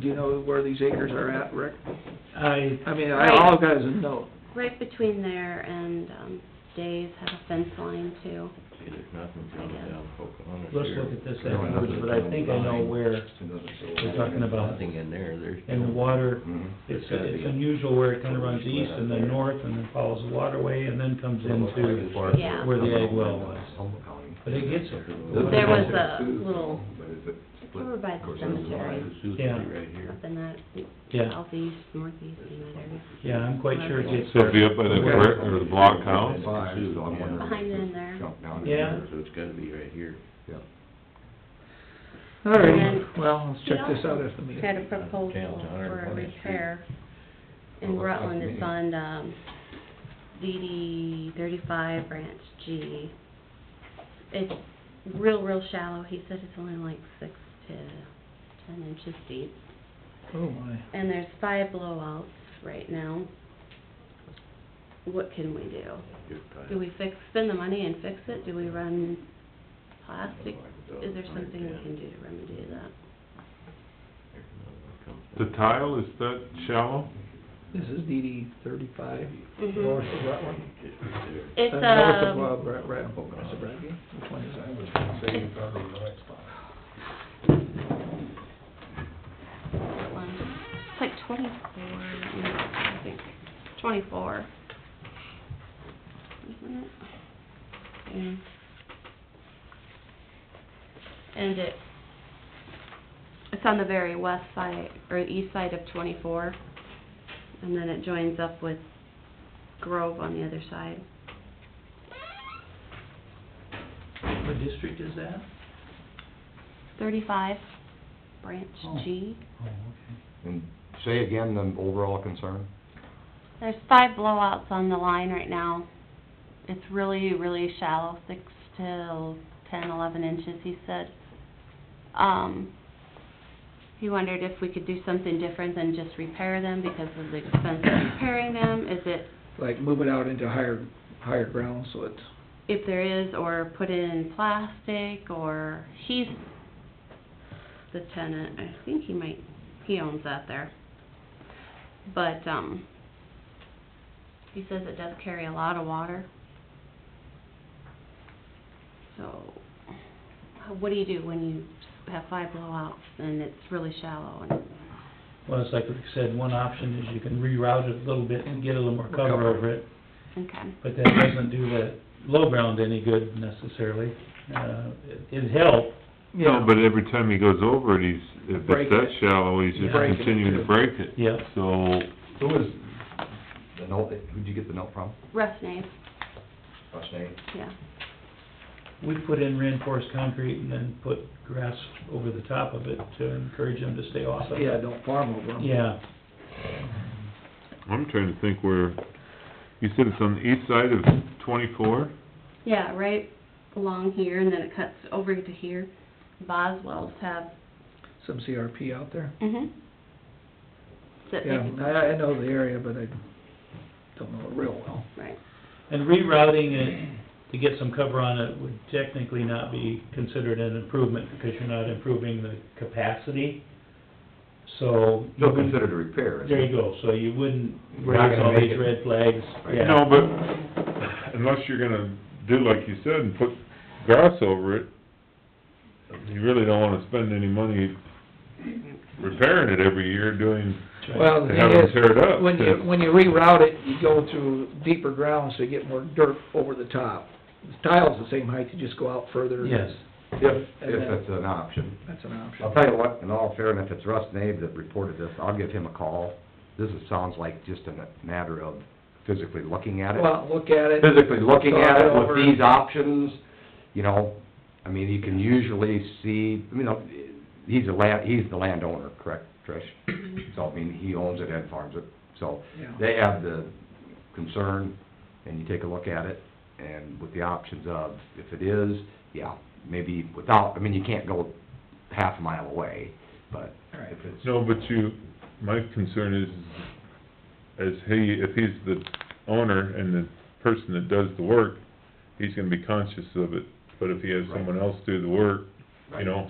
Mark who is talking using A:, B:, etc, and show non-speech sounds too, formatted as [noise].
A: Do you know where these acres are at, Rick?
B: I,
A: I mean, I,
C: Right.
A: all I've got is a note.
C: Right between there and, um, Dave's had a fence line too.
D: See, there's nothing coming down Pocahontas
B: Let's
D: here.
B: look at this
D: Going up
B: afterwards,
D: to
B: but I think I know
D: Columbine.
B: where we're talking about.
D: Nothing in there, there's.
B: And the
D: no-
B: water,
D: Mhm.
B: it's,
D: There's gotta
B: it's
D: be a-
B: unusual where it kinda runs east and then north and then follows the waterway and then comes into
C: Yeah.
B: where the ag well was. But it gets there.
C: There was a little, over by the
D: There's a lot
C: cemetery,
D: of Suzuki
B: Yeah.
D: right here.
C: up in that
B: Yeah,
C: southeast, northeast, in that area.
B: yeah, I'm quite sure it gets
E: So
B: there.
E: it'd be up by the brick or the block house?
C: Behind in there.
B: Yeah.
D: So it's gotta be right here.
A: All right,
C: And then
A: well, let's check
C: he
A: this out
C: also
A: after the meeting.
C: Had a proposal for a repair in Rutland, it's on, um, DD thirty-five, branch G. It's real, real shallow, he said it's only like six to ten inches deep.
A: Oh, my.
C: And there's five blowouts right now. What can we do?
D: Good time.
C: Do we fix, spend the money and fix it? Do we run plastic? Is there something we can do to remedy that?
D: There's another one comes
E: The
D: down.
E: tile, is that shallow?
A: This is DD thirty-five.
C: Mhm.
A: North of Rutland.
D: Just right there.
C: It's,
A: Uh, North of,
C: um,
A: uh, Brad, Brad, is it Bradley? Which one is that?
C: one. It's like twenty-four, I think, twenty-four. Isn't it? Yeah. And it, it's on the very west side, or east side of twenty-four, and then it joins up with Grove on the other side.
B: What district is that?
C: Thirty-five, branch
B: Oh.
C: G.
B: Oh, okay.
F: And say again the overall concern?
C: There's five blowouts on the line right now. It's really, really shallow, six to ten, eleven inches, he said. Um, he wondered if we could do something different than just repair them because of the expense of repairing them. Is it,
A: Like move it out into higher, higher ground, so it's,
C: if there is, or put in plastic, or he's the tenant, I think he might, he owns that there. But, um, he says it does carry a lot of water. So, how- what do you do when you have five blowouts and it's really shallow and,
B: Well, it's like Rick said, one option is you can reroute it a little bit and get a little more cover over it,
C: okay,
B: but that doesn't do that low ground any good necessarily. Uh, it- it'd help,
E: No, but every time he goes over it, he's, if
A: Break
E: it's that
A: it.
E: shallow, he's just
A: Break it,
E: continuing to
A: too.
E: break it.
B: Yep.
E: So,
F: Who was the note, who'd you get the note from?
C: rough name,
F: Russ Nate?
C: yeah.
B: We put in reinforced concrete and then put grass over the top of it to encourage them to stay off of it.
A: yeah, don't farm over 'em.
B: Yeah,
E: I'm trying to think where, you said it's on the east side of twenty-four?
C: Yeah, right along here, and then it cuts over to here. Boswell's have.
A: Some CRP out there.
C: Mm-hmm. That they
A: Yeah,
C: can,
A: I, I know the area, but I don't know it real well.
C: right,
B: and rerouting it to get some cover on it would technically not be considered an improvement because you're not improving the capacity, so. you
F: Still
B: wouldn't-
F: considered a repair, isn't
B: There
F: it?
B: you go, so you wouldn't
F: We're not
B: raise
F: gonna
B: all
F: make
B: these
F: it.
B: red flags, yeah.
E: No, but unless you're gonna do like you said and put grass over it, you really don't wanna spend any money repairing it every year doing,
B: That's right.
A: Well, the
E: Have
A: thing
E: them
A: is,
E: tear it up,
A: when you,
E: then.
A: when you reroute it, you go through deeper ground, so you get more dirt over the top. The Tile's the same height, you just go out further.
B: Yes,
F: If,
A: And
F: if
A: then-
F: it's an option.
A: That's an
F: I'll
A: option.
F: tell you what, in all fairness, if it's Russ Nate that reported this, I'll give him a call. This is, sounds like just a matter of physically looking at it.
A: Go out, look at it.
F: physically looking at it
A: Over.
F: with these options, you know, I mean, you can usually see, you know, he's a land, he's the landowner, correct, Trish? [clears throat] So, I mean, he owns it and farms it, so
A: Yeah.
F: they have the concern, and you take a look at it, and with the options of, if it is, yeah, maybe without, I mean, you can't go half a mile away, but
A: Right.
F: if it's,
E: no, but you, my concern is, is he, if he's the owner and the person that does the work, he's gonna be conscious of it, but if he has someone else do the work, you know,